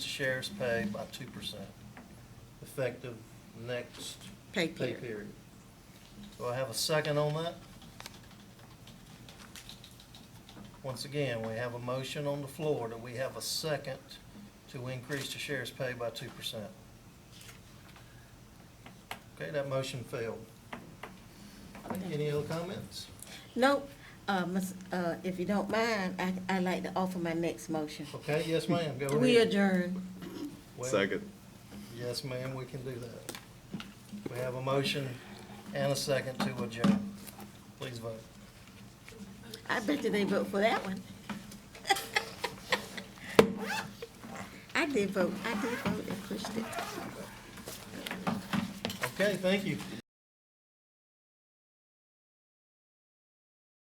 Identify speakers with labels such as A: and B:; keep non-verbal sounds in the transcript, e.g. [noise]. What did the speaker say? A: sheriff's pay by two percent, effective next
B: Pay
A: pay
B: period.
A: period. Do I have a second on that? Once again, we have a motion on the floor. Do we have a second to increase the sheriff's pay by two percent? Okay, that motion failed. Any other comments?
B: Nope, uh, Ms., uh, if you don't mind, I, I'd like to offer my next motion.
A: Okay, yes, ma'am, go ahead.
B: We adjourn.
A: Well,
C: Second.
A: Yes, ma'am, we can do that. We have a motion and a second to adjourn. Please vote.
B: I bet you they vote for that one. [laughs] I did vote, I did vote and pushed it.
A: Okay, thank you.